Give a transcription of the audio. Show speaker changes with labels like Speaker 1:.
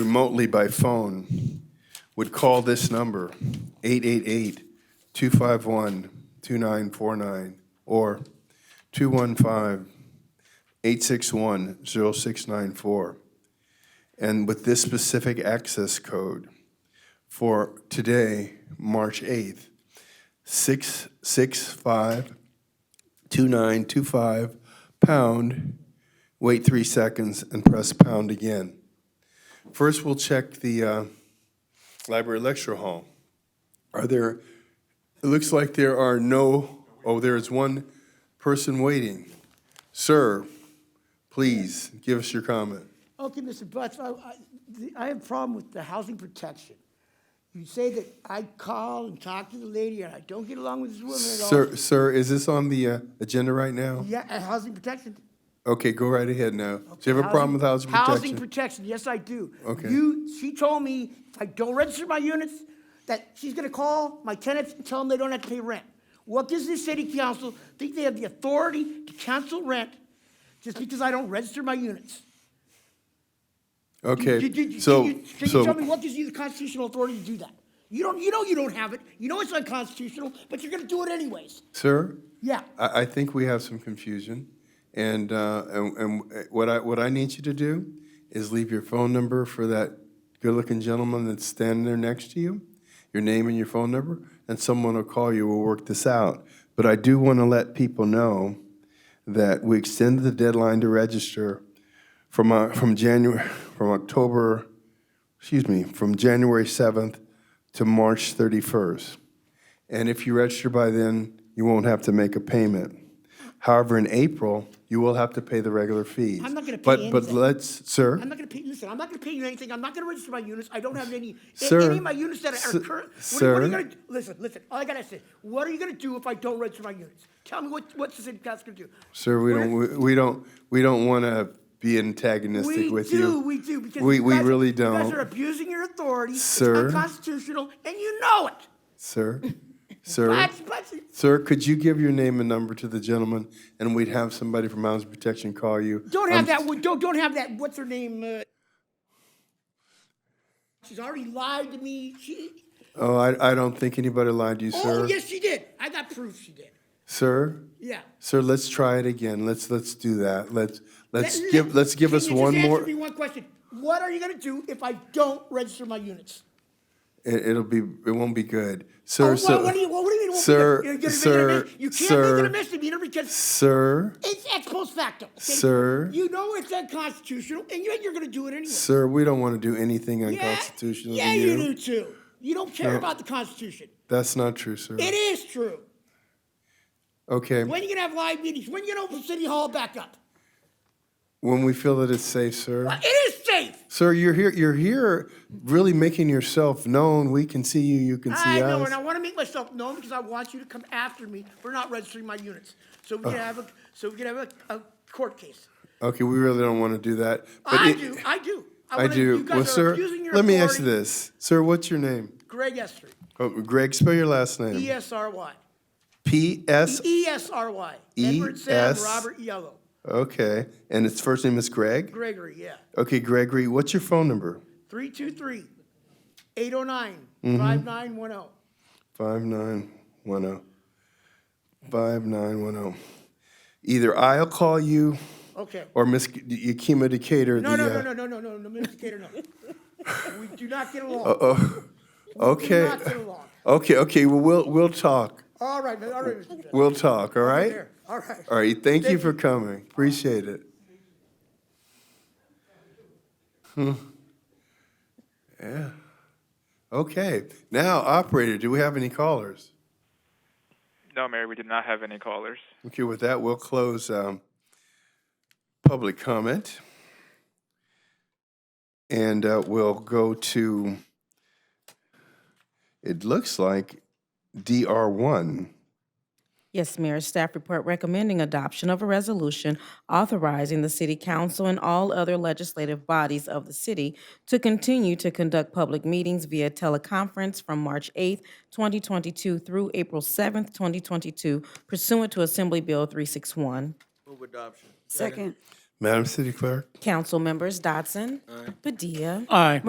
Speaker 1: remotely by phone would call this number, 888-251-2949, or 215-861-0694, and with this specific access code for today, March 8th, 665 2925, pound, wait three seconds, and press pound again. First, we'll check the uh, library lecture hall. Are there, it looks like there are no, oh, there is one person waiting. Sir, please, give us your comment.
Speaker 2: Okay, Mr. Butts, I, I, the- I have a problem with the housing protection. You say that I call and talk to the lady and I don't get along with this woman at all.
Speaker 1: Sir, sir, is this on the uh, agenda right now?
Speaker 2: Yeah, uh, housing protection.
Speaker 1: Okay, go right ahead now. Do you have a problem with housing
Speaker 2: Housing
Speaker 1: protection?
Speaker 2: protection, yes, I do.
Speaker 1: Okay.
Speaker 2: You, she told me if I don't register my units, that she's gonna call my tenants and tell them they don't have to pay rent. What does this city council think they have the authority to cancel rent just because I don't register my units?
Speaker 1: Okay,
Speaker 2: Did- did- did
Speaker 1: so,
Speaker 2: you- Can you tell me
Speaker 1: so,
Speaker 2: what gives you the constitutional authority to do that? You don't, you know you don't have it, you know it's unconstitutional, but you're gonna do it anyways.
Speaker 1: sir?
Speaker 2: Yeah,
Speaker 1: I, I think we have some confusion, and, uh, and, and what I, what I need you to do is leave your phone number for that good-looking gentleman that's standing there next to you, your name and your phone number, and someone will call you, we'll work this out. But I do want to let people know that we extended the deadline to register from, uh, from January, from October, excuse me, from January 7th to March 31st. And if you register by then, you won't have to make a payment. However, in April, you will have to pay the regular fees.
Speaker 2: I'm not gonna pay
Speaker 1: But, but
Speaker 2: anything.
Speaker 1: let's, sir.
Speaker 2: I'm not gonna pay, listen, I'm not gonna pay you anything, I'm not gonna register my units, I don't have any, a-
Speaker 1: Sir,
Speaker 2: any of my units that
Speaker 1: s-
Speaker 2: are current. What are- what are
Speaker 1: sir.
Speaker 2: you gonna do? Listen, listen, all I gotta say, what are you gonna do if I don't register my units? Tell me what, what's the city council gonna do?
Speaker 1: Sir, we don't, we- we don't, we don't want to be antagonistic
Speaker 2: We
Speaker 1: with
Speaker 2: do,
Speaker 1: you.
Speaker 2: we do, because.
Speaker 1: We,
Speaker 2: you
Speaker 1: we
Speaker 2: guys-
Speaker 1: really
Speaker 2: You guys are
Speaker 1: don't,
Speaker 2: abusing your authority, it's
Speaker 1: Sir.
Speaker 2: unconstitutional, and you know it.
Speaker 1: sir, sir.
Speaker 2: But, but,
Speaker 1: Sir, could you give your name and number to the gentleman, and we'd have somebody from Housing Protection call you?
Speaker 2: Don't
Speaker 1: I'm-
Speaker 2: have that. Don't don't have that. What's her name? Uh, she's already lied to me. She.
Speaker 1: Oh, I, I don't think anybody lied to you,
Speaker 2: Oh
Speaker 1: sir.
Speaker 2: yes, she did. I got proof she did.
Speaker 1: Sir?
Speaker 2: Yeah.
Speaker 1: Sir, let's try it again. Let's, let's do that. Let's, let's
Speaker 2: Let-
Speaker 1: give, let's give
Speaker 2: can
Speaker 1: us
Speaker 2: you just
Speaker 1: one
Speaker 2: answer
Speaker 1: more.
Speaker 2: me one question. What are you gonna do if I don't register my units?
Speaker 1: It, it'll be, it won't be good.
Speaker 2: Oh,
Speaker 1: Sir,
Speaker 2: what,
Speaker 1: sir.
Speaker 2: what do you? What do you mean? it won't be
Speaker 1: sir,
Speaker 2: good? You're gonna make it a
Speaker 1: sir,
Speaker 2: mis- You can't make
Speaker 1: sir,
Speaker 2: it a misdemeanor because
Speaker 1: Sir,
Speaker 2: it's ex post facto. okay?
Speaker 1: Sir.
Speaker 2: You know it's unconstitutional, and yet you're gonna do it anyway.
Speaker 1: sir, we don't want to do anything
Speaker 2: Yeah,
Speaker 1: unconstitutional to
Speaker 2: Yeah, you do
Speaker 1: you.
Speaker 2: too. You don't care about the Constitution.
Speaker 1: That's not true, sir.
Speaker 2: It is true.
Speaker 1: Okay,
Speaker 2: When are you gonna have live meetings? When are you gonna open City Hall back up?
Speaker 1: when we feel that it's safe, sir.
Speaker 2: It is safe.
Speaker 1: Sir, you're here. You're here, really making yourself known. We can see you. You can see us.
Speaker 2: I know, and I want to make myself known because I want you to come after me for not registering my units. So we can have a so we can have a, a court case.
Speaker 1: okay, we really don't want to do that.
Speaker 2: I
Speaker 1: it-
Speaker 2: do. I do. I,
Speaker 1: I
Speaker 2: wanna-
Speaker 1: do.
Speaker 2: You guys
Speaker 1: Well,
Speaker 2: are
Speaker 1: sir,
Speaker 2: abusing your
Speaker 1: let me ask you
Speaker 2: authority.
Speaker 1: this, sir. What's your name?
Speaker 2: Greg Esther,
Speaker 1: Oh, Greg, spell your last
Speaker 2: E
Speaker 1: name.
Speaker 2: S R Y,
Speaker 1: P S.
Speaker 2: E S R Y,
Speaker 1: E
Speaker 2: Edward Sam
Speaker 1: S-
Speaker 2: Robert Yellow,
Speaker 1: Okay, and its first name is Greg.
Speaker 2: Gregory. Yeah,
Speaker 1: Okay, Gregory. What's your phone number?
Speaker 2: 323-809-5910.
Speaker 1: Five nine one zero. Five nine one zero. Either I'll call you,
Speaker 2: Okay.
Speaker 1: or Miss Yakima Decatur.
Speaker 2: No,
Speaker 1: the,
Speaker 2: no, no,
Speaker 1: uh,
Speaker 2: no, no, no, no, no, Mr. Gator, no. We do not get along. We do
Speaker 1: oh, Okay.
Speaker 2: not get along.
Speaker 1: Okay, okay, well, we'll, we'll talk.
Speaker 2: All right, all right, Mr. Judge.
Speaker 1: We'll talk, all right?
Speaker 2: There, all right.
Speaker 1: All right, thank you
Speaker 2: Thank
Speaker 1: for coming. Appreciate it. Hmm. Yeah. Okay, now, operator, do we have any callers?
Speaker 3: No, Mayor, we did not have any callers.
Speaker 1: Okay, with that, we'll close um, public comment. And uh, we'll go to, it looks like DR1.
Speaker 4: Yes, Mayor. Staff report recommending adoption of a resolution authorizing the city council and all other legislative bodies of the city to continue to conduct public meetings via teleconference from March 8th, 2022 through April 7th, 2022 pursuant to Assembly Bill 361.
Speaker 5: Second.
Speaker 1: Madam City Clerk?
Speaker 4: Council members Dodson. Padilla.
Speaker 6: Aye.